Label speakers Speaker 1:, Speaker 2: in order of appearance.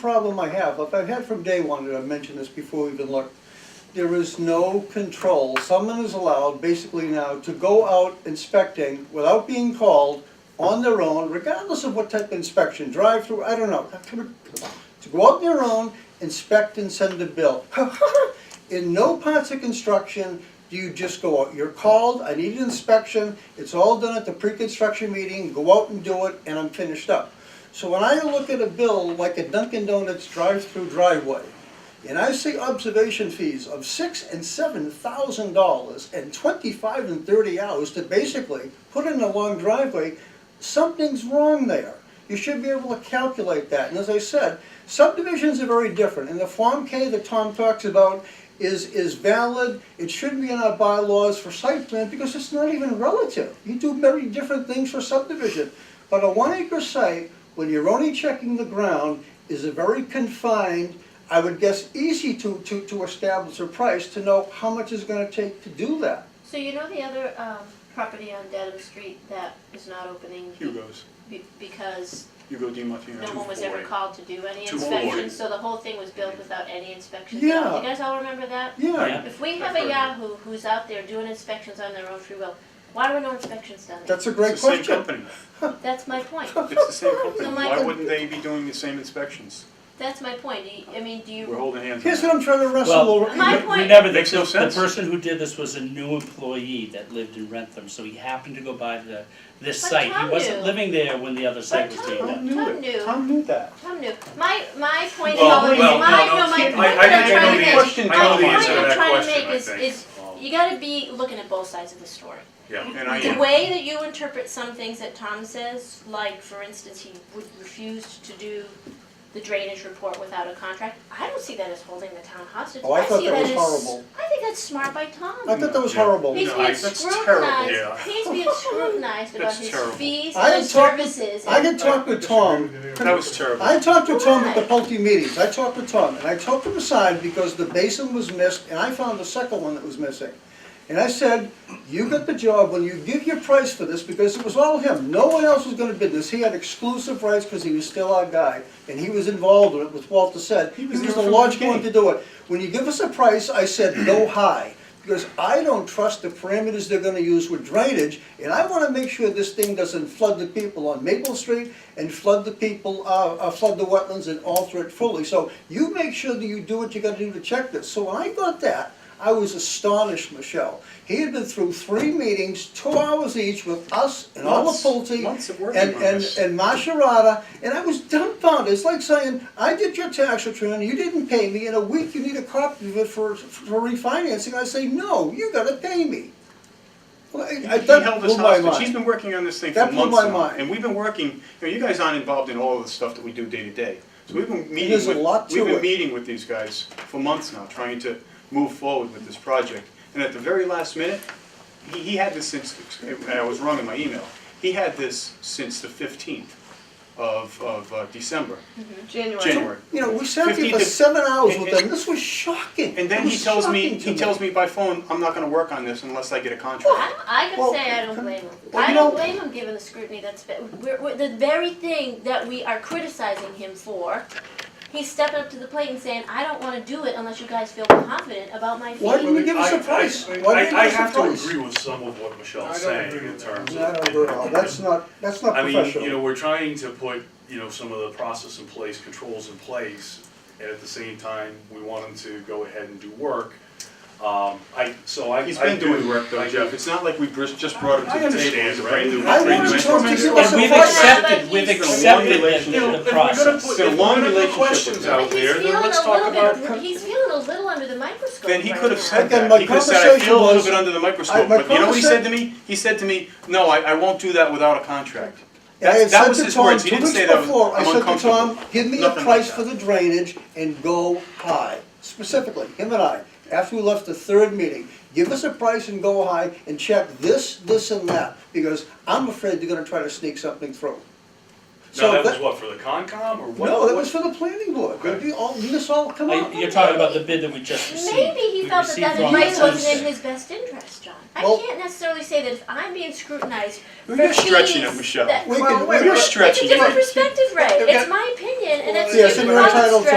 Speaker 1: problem I have, if I've had from day one, and I've mentioned this before we even looked, there is no control. Someone is allowed basically now to go out inspecting without being called on their own, regardless of what type of inspection, drive-through, I don't know. To go out on their own, inspect and send a bill. In no parts of construction do you just go out, you're called, I need an inspection, it's all done at the pre-construction meeting, go out and do it, and I'm finished up. So when I look at a bill like a Dunkin' Donuts drive-through driveway, and I see observation fees of six and seven thousand dollars and twenty-five and thirty hours to basically put in a long driveway, something's wrong there. You should be able to calculate that, and as I said, subdivisions are very different, and the Form K that Tom talks about is, is valid, it shouldn't be in our bylaws for site plan, because it's not even relative. You do very different things for subdivision, but a one acre site, when you're only checking the ground, is a very confined, I would guess, easy to, to, to establish a price, to know how much it's gonna take to do that.
Speaker 2: So you know the other um, property on Dedham Street that is not opening? be-
Speaker 3: Hugo's,
Speaker 2: be- Because
Speaker 3: Hugo Di Martino.
Speaker 2: no one was ever called to do any
Speaker 3: Two forty.
Speaker 2: inspections, so the whole thing was built without any inspections. at
Speaker 1: Yeah.
Speaker 2: all. You guys all remember that?
Speaker 1: Yeah,
Speaker 4: Yeah.
Speaker 2: If we have
Speaker 3: I've
Speaker 2: a
Speaker 3: heard of
Speaker 2: Yahoo who's out there doing inspections on their own free will, why were no inspections done?
Speaker 1: that's a great
Speaker 3: It's the same
Speaker 1: question.
Speaker 3: company,
Speaker 2: That's my point.
Speaker 3: it's the same company,
Speaker 2: So
Speaker 3: why
Speaker 2: Michael-
Speaker 3: wouldn't they be doing the same inspections?
Speaker 2: That's my point. Do you- I mean, do you,
Speaker 3: We're holding hands on
Speaker 1: Here's what
Speaker 3: that.
Speaker 1: I'm trying to wrestle
Speaker 4: Well,
Speaker 1: over.
Speaker 2: My
Speaker 4: We- we
Speaker 2: point-
Speaker 4: never- the-
Speaker 3: Makes no
Speaker 4: the-
Speaker 3: sense.
Speaker 4: The person who did this was a new employee that lived in Rentham, so he happened to go by the, this
Speaker 2: But
Speaker 4: site. He
Speaker 2: Tom
Speaker 4: wasn't
Speaker 2: knew.
Speaker 4: living there when the other site was
Speaker 2: Tom
Speaker 4: being
Speaker 1: Tom
Speaker 4: done.
Speaker 1: knew
Speaker 2: Tom
Speaker 1: it,
Speaker 2: knew.
Speaker 1: Tom knew that.
Speaker 2: Tom knew, my, my point
Speaker 3: Well,
Speaker 2: always, my, no,
Speaker 3: well, no, no,
Speaker 2: my
Speaker 3: I-
Speaker 2: point
Speaker 3: I
Speaker 2: that I'm
Speaker 3: think I know
Speaker 2: trying to
Speaker 3: the
Speaker 2: make.
Speaker 3: answer. I know the
Speaker 2: my
Speaker 3: answer to
Speaker 2: point
Speaker 3: that
Speaker 2: I'm trying to
Speaker 3: question,
Speaker 2: make
Speaker 3: I
Speaker 2: is,
Speaker 3: think.
Speaker 2: is,
Speaker 3: Um,
Speaker 2: you gotta be looking at both sides of the story.
Speaker 3: Yeah, and I
Speaker 2: The
Speaker 3: am,
Speaker 2: way that you interpret some things that Tom says, like for instance, he would refuse to do the drainage report without a contract, I don't see that as holding the town hostage.
Speaker 1: Oh, I thought
Speaker 2: see
Speaker 1: that was
Speaker 2: as-
Speaker 1: horrible.
Speaker 2: I think that's smart by
Speaker 1: I
Speaker 2: Tom.
Speaker 1: thought that was
Speaker 3: Yeah.
Speaker 1: horrible.
Speaker 2: He's
Speaker 3: No,
Speaker 2: being
Speaker 3: I- that's terrible. Yeah.
Speaker 2: scrutinized, he's being scrutinized about
Speaker 3: That's
Speaker 2: his
Speaker 3: terrible.
Speaker 2: fees
Speaker 1: I
Speaker 2: and his
Speaker 1: talked-
Speaker 2: services.
Speaker 1: I
Speaker 2: and-
Speaker 1: can talk with Tom.
Speaker 3: that was terrible.
Speaker 1: I talked to Tom at the
Speaker 2: Why?
Speaker 1: Pulte meetings, I talked to Tom, and I talked him aside because the basin was missed, and I found the second one that was missing. And I said, you got the job when you give your price for this, because it was all him, no one else was gonna bid this, he had exclusive rights because he was still our guy, and he was involved in it, as Walter said, he
Speaker 3: He
Speaker 1: was
Speaker 3: was there
Speaker 1: the
Speaker 3: from the
Speaker 1: logical one to
Speaker 3: beginning.
Speaker 1: do it. When you give us a price, I said, go high, because I don't trust the parameters they're gonna use with drainage, and I wanna make sure this thing doesn't flood the people on Maple Street and flood the people, uh, uh, flood the wetlands and alter it fully. So you make sure that you do what you gotta do to check this. So when I got that, I was astonished, Michelle. He had been through three meetings, two hours each with us and all the
Speaker 3: Months.
Speaker 1: Pulte.
Speaker 3: Months of working
Speaker 1: And,
Speaker 3: on
Speaker 1: and,
Speaker 3: this.
Speaker 1: and Maserati, and I was dumbfounded. It's like saying, I did your tax return, you didn't pay me, in a week you need a copy of it for, for refinancing. I say, no, you gotta pay me. Well, I-
Speaker 3: He
Speaker 1: I- that
Speaker 3: held
Speaker 1: blew
Speaker 3: us
Speaker 1: my
Speaker 3: hostage, he's
Speaker 1: mind.
Speaker 3: been working on this thing for
Speaker 1: That blew
Speaker 3: months
Speaker 1: my
Speaker 3: now,
Speaker 1: mind.
Speaker 3: and we've been working, you know, you guys aren't involved in all of the stuff that we do day to day. So we've been meeting
Speaker 1: There's
Speaker 3: with,
Speaker 1: a lot to
Speaker 3: we've
Speaker 1: it.
Speaker 3: been meeting with these guys for months now, trying to move forward with this project. And at the very last minute, he, he had this since, and I was wrong in my email, he had this since the fifteenth of, of uh, December, January.
Speaker 1: You know, we sat there for
Speaker 3: 50
Speaker 1: seven hours
Speaker 3: and-
Speaker 1: with
Speaker 3: and-
Speaker 1: them, this was shocking.
Speaker 3: And
Speaker 1: It
Speaker 3: then he
Speaker 1: was
Speaker 3: tells me,
Speaker 1: shocking to
Speaker 3: he tells me by phone, I'm not gonna work on this unless I get a contract.
Speaker 2: Well, I, I
Speaker 1: Well,
Speaker 2: can say I don't blame him.
Speaker 1: well,
Speaker 2: I
Speaker 1: you
Speaker 2: don't
Speaker 1: know-
Speaker 2: blame him given the scrutiny that's, been- we're, we're, the very thing that we are criticizing him for, he's stepping up to the plate and saying, I don't wanna do it unless you guys feel confident about my
Speaker 1: Why didn't
Speaker 2: fee.
Speaker 1: you give us a
Speaker 5: I- I-
Speaker 1: price?
Speaker 5: I-
Speaker 1: Why didn't you
Speaker 5: I-
Speaker 1: give us a
Speaker 5: I have
Speaker 1: price?
Speaker 5: to agree with some of what Michelle's
Speaker 6: I don't
Speaker 5: saying
Speaker 6: agree
Speaker 5: in
Speaker 6: with
Speaker 5: terms of.
Speaker 1: No, no, no, that's not, that's not
Speaker 5: I mean,
Speaker 1: professional.
Speaker 5: you know, we're trying to put, you know, some of the process in place, controls in place, and at the same time, we want them to go ahead and do work. Um, I, so I.
Speaker 3: He's
Speaker 5: I
Speaker 3: been
Speaker 5: do-
Speaker 3: doing work though,
Speaker 5: I-
Speaker 3: Jeff, it's not like we bris- just brought him
Speaker 5: I
Speaker 3: to the table,
Speaker 5: understand,
Speaker 3: he's a brand new.
Speaker 1: right? I
Speaker 3: brand new
Speaker 1: wanted Tom to
Speaker 3: entrance.
Speaker 1: give us
Speaker 4: And we've
Speaker 1: Well,
Speaker 4: accepted, we've
Speaker 2: he's-
Speaker 4: accepted
Speaker 3: It's
Speaker 5: You know,
Speaker 4: the, the
Speaker 5: if we're gonna
Speaker 4: process.
Speaker 5: put-
Speaker 3: It's a
Speaker 5: if we're
Speaker 3: long
Speaker 5: gonna put
Speaker 3: relationship with
Speaker 5: Questions
Speaker 3: them.
Speaker 5: out
Speaker 2: But he's
Speaker 5: there, then
Speaker 2: feeling a
Speaker 5: let's talk
Speaker 2: little
Speaker 5: about.
Speaker 2: bit, he's feeling a little under the microscope
Speaker 3: Then he
Speaker 2: right
Speaker 3: could have
Speaker 2: now.
Speaker 3: said
Speaker 1: Again,
Speaker 3: that.
Speaker 1: my
Speaker 3: he could have said, I feel a little
Speaker 1: conversation
Speaker 3: bit
Speaker 1: was-
Speaker 3: under the
Speaker 1: I-
Speaker 3: microscope.
Speaker 1: my
Speaker 3: but you know what he
Speaker 1: conversa-
Speaker 3: said to me? He said to me, No, I, I won't do that without a contract.
Speaker 1: And I
Speaker 3: That's,
Speaker 1: had
Speaker 3: that
Speaker 1: said
Speaker 3: was
Speaker 1: to
Speaker 3: his
Speaker 1: Tom
Speaker 3: words. He
Speaker 1: two
Speaker 3: didn't
Speaker 1: weeks
Speaker 3: say that I'm
Speaker 1: before, I
Speaker 3: I'm
Speaker 1: said to
Speaker 3: uncomfortable.
Speaker 1: Tom, give me a
Speaker 3: Nothing like
Speaker 1: price for
Speaker 3: that.
Speaker 1: the drainage and go high, specifically, him and I. After we left the third meeting, give us a price and go high and check this, this and that, because I'm afraid they're gonna try to sneak something through.
Speaker 5: Now,
Speaker 1: So
Speaker 5: that was
Speaker 1: that-
Speaker 5: what, for the Concom or what?
Speaker 1: No, that
Speaker 5: what-
Speaker 1: was for the planning board,
Speaker 5: Okay.
Speaker 1: you all, you just all come
Speaker 4: Are
Speaker 1: up.
Speaker 4: you- You're talking about the bid that we just received.
Speaker 2: Maybe he
Speaker 4: We
Speaker 2: felt that
Speaker 4: received
Speaker 2: that
Speaker 4: one
Speaker 2: advice
Speaker 4: on
Speaker 2: wasn't in
Speaker 4: Tuesday.
Speaker 2: his best interest, John. I
Speaker 1: Well-
Speaker 2: can't necessarily say that if I'm being scrutinized for
Speaker 3: You're stretching
Speaker 2: fees
Speaker 3: it, Michelle.
Speaker 2: that-
Speaker 1: We
Speaker 6: Well,
Speaker 1: could-
Speaker 6: wait,
Speaker 1: we
Speaker 6: you're
Speaker 1: could-
Speaker 2: It's a
Speaker 3: stretching it.
Speaker 2: different perspective, Ray.
Speaker 1: Okay.
Speaker 2: It's my opinion, and it's
Speaker 1: Yes,
Speaker 2: you
Speaker 1: and you're
Speaker 2: cannot
Speaker 1: entitled to
Speaker 2: stretch